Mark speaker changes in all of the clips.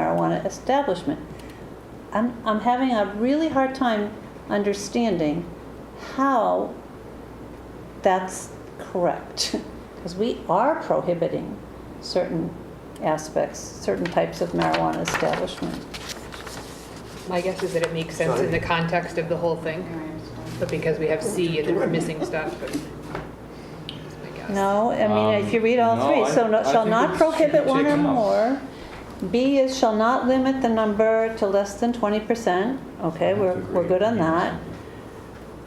Speaker 1: marijuana establishment. I'm, I'm having a really hard time understanding how that's correct. Because we are prohibiting certain aspects, certain types of marijuana establishment.
Speaker 2: My guess is that it makes sense in the context of the whole thing, but because we have C and then we're missing stuff, but. that's my guess.
Speaker 1: No, I mean, if you read all
Speaker 3: Um,
Speaker 1: three,
Speaker 3: no, I-
Speaker 1: so no-
Speaker 3: I
Speaker 1: shall
Speaker 3: think
Speaker 1: not
Speaker 3: it's
Speaker 1: prohibit one or
Speaker 3: taken out.
Speaker 1: more. B is shall not limit the number to less than twenty percent. Okay, we're, we're good on that.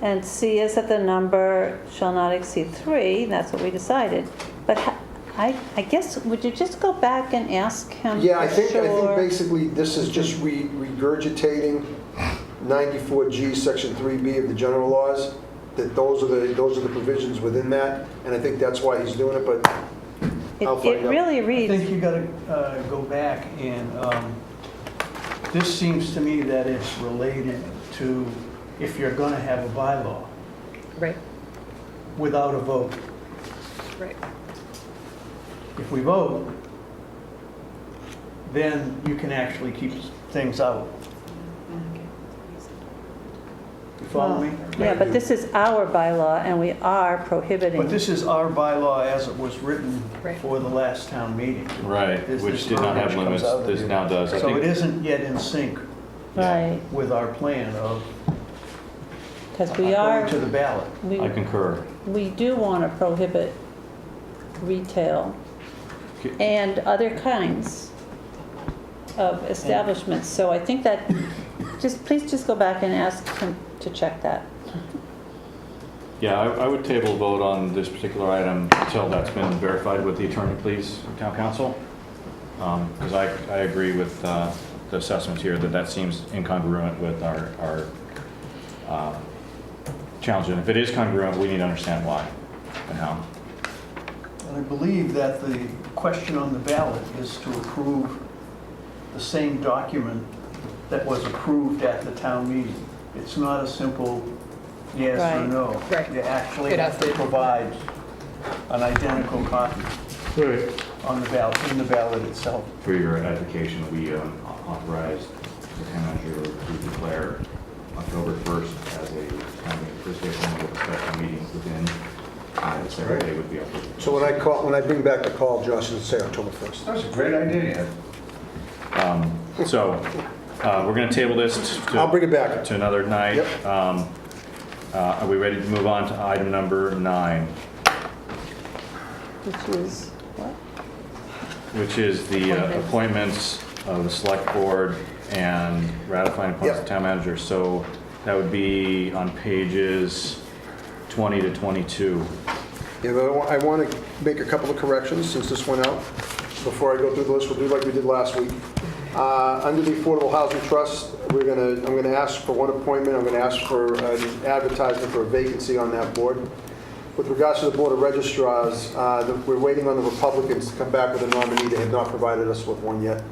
Speaker 1: And C is that the number shall not exceed three, that's what we decided. But ha- I, I guess, would you just go back and ask him
Speaker 4: Yeah, I
Speaker 1: for
Speaker 4: think, I think
Speaker 1: sure?
Speaker 4: basically this is just re- regurgitating 94G, Section 3B of the general laws, that those are the, those are the provisions within that, and I think that's why he's doing it, but
Speaker 1: It-
Speaker 4: I'll find
Speaker 1: It
Speaker 4: out.
Speaker 1: really
Speaker 5: I think
Speaker 1: reads,
Speaker 5: you gotta uh, go back and, um, this seems to me that it's related to if you're gonna have a bylaw
Speaker 2: Right,
Speaker 5: without a vote.
Speaker 2: right.
Speaker 5: If we vote, then you can actually keep things out. You follow me?
Speaker 1: yeah, but this is our bylaw and we are prohibiting.
Speaker 5: But this is our bylaw as it was written
Speaker 2: Right.
Speaker 5: for the last town meeting.
Speaker 3: Right,
Speaker 5: This-
Speaker 3: which
Speaker 5: this
Speaker 3: did not have
Speaker 5: verbiage comes
Speaker 3: limits,
Speaker 5: out of
Speaker 3: this
Speaker 5: here.
Speaker 3: now does. I
Speaker 5: So it
Speaker 3: think-
Speaker 5: isn't yet in sync
Speaker 1: Right,
Speaker 5: with our plan of
Speaker 1: because we
Speaker 5: going
Speaker 1: are,
Speaker 5: to the ballot.
Speaker 1: we
Speaker 3: I concur.
Speaker 1: we do want to prohibit retail
Speaker 3: Okay.
Speaker 1: and other kinds of establishments, so I think that, just, please just go back and ask him to check that.
Speaker 3: Yeah, I I would table vote on this particular item until that's been verified with the attorney, please, or town council. Because I, I agree with uh, the assessments here, that that seems incongruent with our, our uh, challenge. And if it is congruent, we need to understand why and how.
Speaker 5: And I believe that the question on the ballot is to approve the same document that was approved at the town meeting. It's not a simple yes or
Speaker 1: Right.
Speaker 5: no.
Speaker 2: Right.
Speaker 5: You actually
Speaker 2: It
Speaker 5: have
Speaker 2: has
Speaker 5: to
Speaker 2: to-
Speaker 5: provide an identical copy on the ballot, in the ballot itself.
Speaker 3: For your application, we um, authorized the town manager to declare October 1st as a town meeting, first day of town meeting, with a special meeting within, uh, the second day would be October.
Speaker 4: So when I call, when I bring back the call, Josh, it'll say October 1st.
Speaker 6: That's a great idea.
Speaker 3: Um, So, uh, we're going to table this to...
Speaker 4: I'll bring it back.
Speaker 3: To another night.
Speaker 4: Yep.
Speaker 3: Um, uh, Are we ready to move on to item number nine,
Speaker 1: Which is, what?
Speaker 3: which is the uh, appointments of the select board and ratifying appointments of
Speaker 4: Yep.
Speaker 3: town manager? So that would be on pages 20 to 22.
Speaker 4: Yeah, but I wa- I want to make a couple of corrections since this went out. Before I go through the list, we'll do like we did last week. Uh, Under the Affordable Housing Trust, we're going to, I'm going to ask for one appointment, I'm going to ask for an advertisement for a vacancy on that board. With regards to the Board of Registrars, uh, the- we're waiting on the Republicans to come back with a nominee. They have not provided us with one yet.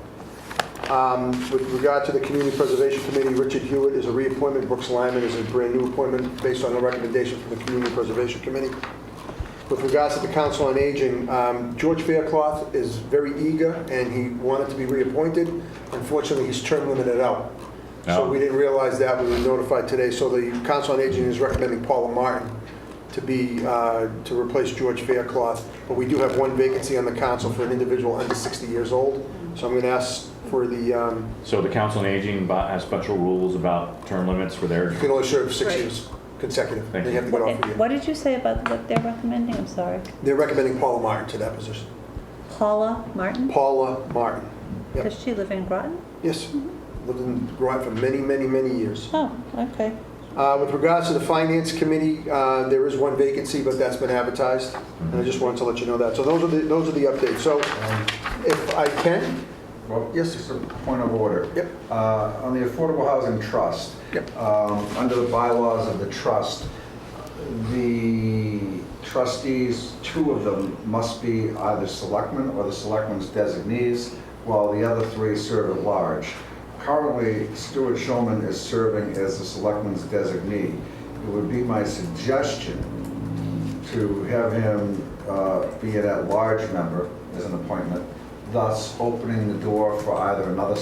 Speaker 4: Um, With regard to the Community Preservation Committee, Richard Hewitt is a reappointment, Brooks Lyman is a brand-new appointment based on a recommendation from the Community Preservation Committee. With regards to the Council on Aging, um, George Faircloth is very eager, and he wanted to be reappointed. Unfortunately, he's term limited out. So
Speaker 3: Oh.
Speaker 4: we didn't realize that, we were notified today. So the Council on Aging is recommending Paula Martin to be, uh, to replace George Faircloth. But we do have one vacancy on the council for an individual under 60 years old. So I'm going to ask for the, um,
Speaker 3: So the Council on Aging bu- has special rules about term limits for their,
Speaker 4: you can only serve six
Speaker 2: Right.
Speaker 4: years consecutive.
Speaker 3: Thank
Speaker 4: They
Speaker 3: you.
Speaker 4: have to get off
Speaker 1: What
Speaker 4: of you.
Speaker 1: what did you say about what they're recommending? I'm sorry.
Speaker 4: They're recommending Paula Martin to that position.
Speaker 1: Paula Martin?
Speaker 4: Paula Martin. Yep.
Speaker 1: Does she live in Groton?
Speaker 4: Yes, lived in Groton for many, many, many years.
Speaker 1: Oh, okay.
Speaker 4: Uh, With regards to the Finance Committee, uh, there is one vacancy, but that's been advertised, and I just wanted to let you know that. So those are the, those are the updates. So if I can,
Speaker 6: Well,
Speaker 4: Yes.
Speaker 6: just a point of order.
Speaker 4: Yep.
Speaker 6: Uh, On the Affordable Housing Trust.
Speaker 4: Yep.
Speaker 6: um, Under the bylaws of the trust, the trustees, two of them must be either selectmen or the selectmen's designees, while the other three serve at large. Currently, Stuart Shulman is serving as the selectman's designee. It would be my suggestion to have him uh, be an at-large member as an appointment, thus opening the door for either another